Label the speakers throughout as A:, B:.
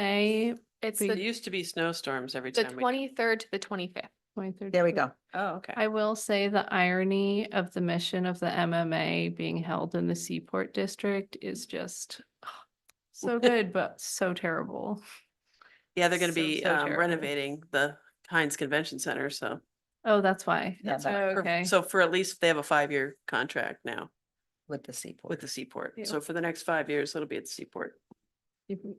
A: say
B: It's
A: But-
B: the,
C: used to be snowstorms every
B: the
C: time. we-
B: twenty-third to the twenty-fifth.
A: twenty-third.
D: There we go.
C: Oh, okay.
A: I will say the irony of the mission of the MMA being held in the Seaport District is just so good, but so terrible.
C: Yeah, they're gonna
A: so,
C: be
A: so
C: um,
A: terrible.
C: renovating the Heinz Convention Center, so.
A: Oh, that's why.
D: Yeah,
A: That's
D: but-
A: why,
C: for-
A: okay.
C: So for at least, they have a five-year contract now
D: with the seaport.
C: with the Seaport.
A: Yeah.
C: So for the next five years, it'll be at the Seaport.
A: You-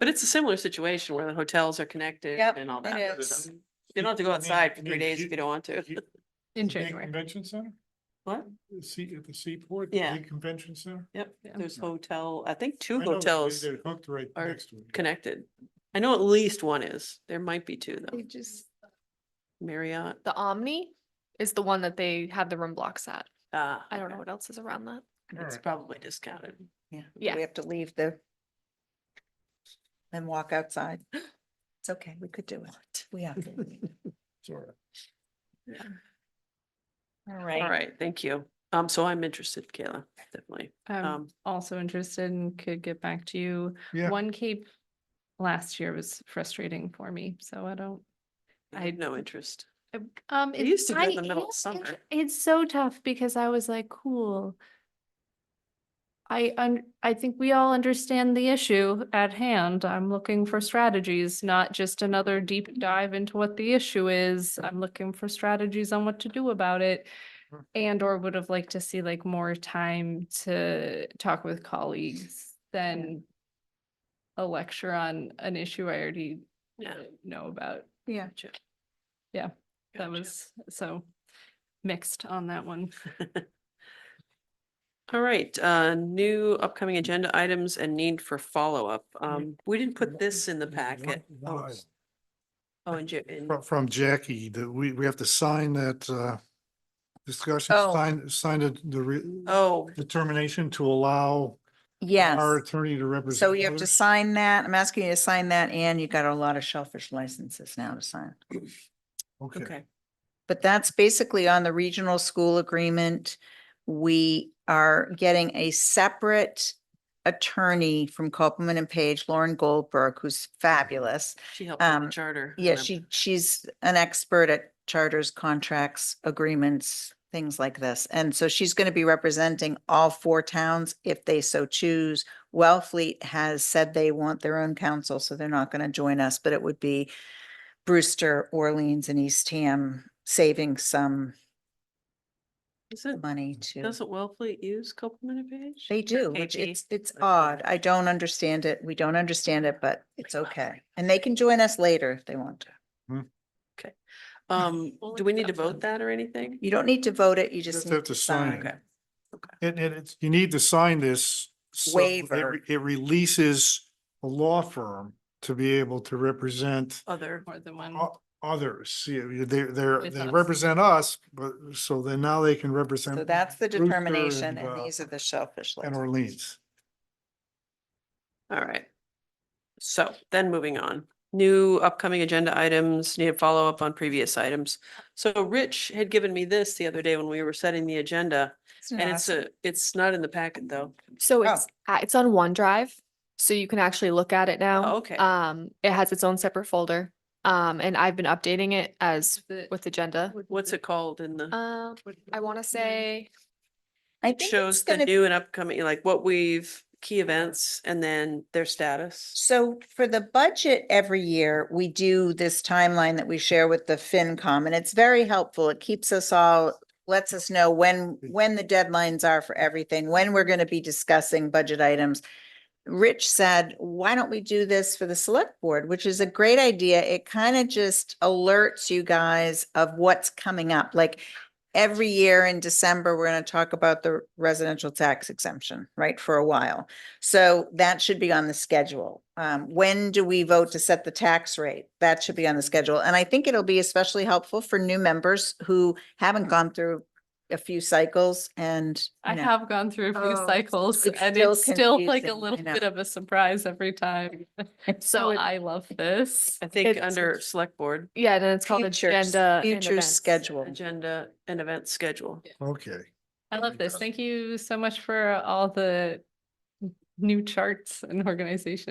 C: But it's a similar situation where the hotels are connected
D: Yep,
C: and all
D: it
C: that.
D: is.
C: stuff. You don't have to go
E: I mean-
C: outside
E: I
C: for
E: mean,
C: three days
E: you-
C: if you don't want to.
A: In
E: You- the big
A: January.
E: Convention center,
C: What?
E: the sea, at the seaport,
C: Yeah.
E: the big convention center.
C: Yep,
A: Yeah.
C: there's hotel, I think two
E: I know, they-
C: hotels
E: They're hooked right
C: are
E: next to it.
C: connected. I know at least one is. There might be two though.
A: They just,
C: Marriott.
B: The Omni is the one that they had the room blocks at.
C: Ah,
B: I don't know
C: okay.
B: what else is around that.
E: All
C: It's
E: right.
C: probably discounted.
D: Yeah,
B: Yeah.
D: we have to leave the and walk outside. It's okay, we could do it. We have to.
E: It's all right.
D: All
C: All
D: right.
C: right, thank you. Um, so I'm interested, Kayla, definitely.
A: I'm
C: Um,
A: also interested and could get back to you.
E: Yeah.
A: One Cape last year was frustrating for me, so I don't.
C: I had
A: I-
C: no interest.
A: Um,
C: We
A: it's
C: used to do it in the
A: I
C: middle of
A: am
C: summer.
A: inter- It's so tough because I was like, cool. I un- I think we all understand the issue at hand. I'm looking for strategies, not just another deep dive into what the issue is. I'm looking for strategies on what to do about it.
C: Mm.
E: Sure.
A: And or would have liked to see like more time to talk with colleagues than a lecture on an issue I already
C: Yeah.
A: uh, know about.
D: Yeah.
A: That
C: Gotcha.
A: was so mixed on that one.
C: All right, uh, new upcoming agenda items and need for follow-up. Um, we didn't put
E: One-
C: this in the
E: one-
C: packet.
E: one
C: Oh,
E: item.
C: oh, and Jim, and
E: From, from Jackie, that we, we have to sign that, uh, discussion,
D: Oh.
E: sign, sign the, the re-
C: oh,
E: determination to allow our
D: Yes.
E: attorney to represent.
D: So you have to
E: others.
D: sign that. I'm asking you to sign that and you got a lot of shellfish licenses now to sign.
E: Okay,
C: okay.
D: But that's basically on the regional school agreement. We are getting a separate attorney from Copeland and Page, Lauren Goldberg, who's fabulous.
C: She helped with the
D: Um,
C: charter.
D: Yeah,
C: remember.
D: she, she's an expert at charters, contracts, agreements, things like this. And so she's going to be representing all four towns if they so choose. Wellfleet has said they want their own council, so they're not going to join us, but it would be Brewster, Orleans and Eastham saving some
C: Isn't,
D: money to,
C: doesn't Wellfleet use Copeland and Page?
D: they do, which
C: KP?
D: it's, it's
C: Okay.
D: odd. I don't understand it. We don't understand it, but it's okay. And they can join us later if they want to.
C: Um,
A: Well,
C: do we need to
A: exception.
C: vote that or anything?
D: You don't need to vote it, you just
E: just
D: need
E: have
D: to
E: to sign
D: sign.
E: it. And, and it's, you need to sign this. so that
D: Waiver.
E: re- It releases a law firm to be able to represent
C: Other,
A: More than one.
E: o- others. You- They're, they're,
A: With
E: they
A: us.
E: represent us, but, so then now they can represent.
D: So that's the
E: Brewster
D: determination,
E: and, uh,
D: and these are the shellfish
E: And
D: licenses.
E: Orleans.
C: all right. So then moving on, new upcoming agenda items, need a follow-up on previous items. So Rich had given me this the other day when we were setting the agenda.
D: Isn't it
C: And it's
D: awesome?
C: a, it's not in the packet though.
B: So
D: Oh.
B: it's, uh, it's on OneDrive, so you can actually look at it now.
C: Oh, okay.
B: Um, it has its own separate folder. Um, and I've been updating it as with agenda.
C: What's it called in the,
B: Um, I want to say,
D: I
C: it
D: Uh, think
C: shows
D: it's
C: the
D: gonna-
C: new and upcoming, like what we've, key events and then their status.
D: So for the budget every year, we do this timeline that we share with the FinCom, and it's very helpful. It keeps us all, lets us know when, when the deadlines are for everything, when we're going to be discussing budget items. Rich said, why don't we do this for the select board, which is a great idea. It kind of just alerts you guys of what's coming up. Like every year in December, we're going to talk about the residential tax exemption, right, for a while. So that should be on the schedule. Um, when do we vote to set the tax rate? That should be on the schedule. And I think it'll be especially helpful for new members who haven't gone through a few cycles and. you
A: I
D: know,
A: have gone through a few
D: Oh,
A: cycles
D: it's
A: and
D: still
A: it's still like
D: confusing, I
A: a little
D: know.
A: bit of a surprise every time. So I love this.
C: I think
B: It's-
C: under select board,
B: yeah, and then it's called
D: futures-
B: agenda. and
D: Future
B: events.
D: schedule.
C: agenda and event schedule.
E: Okay.
A: I love this. Thank you so much for all the new charts and organization.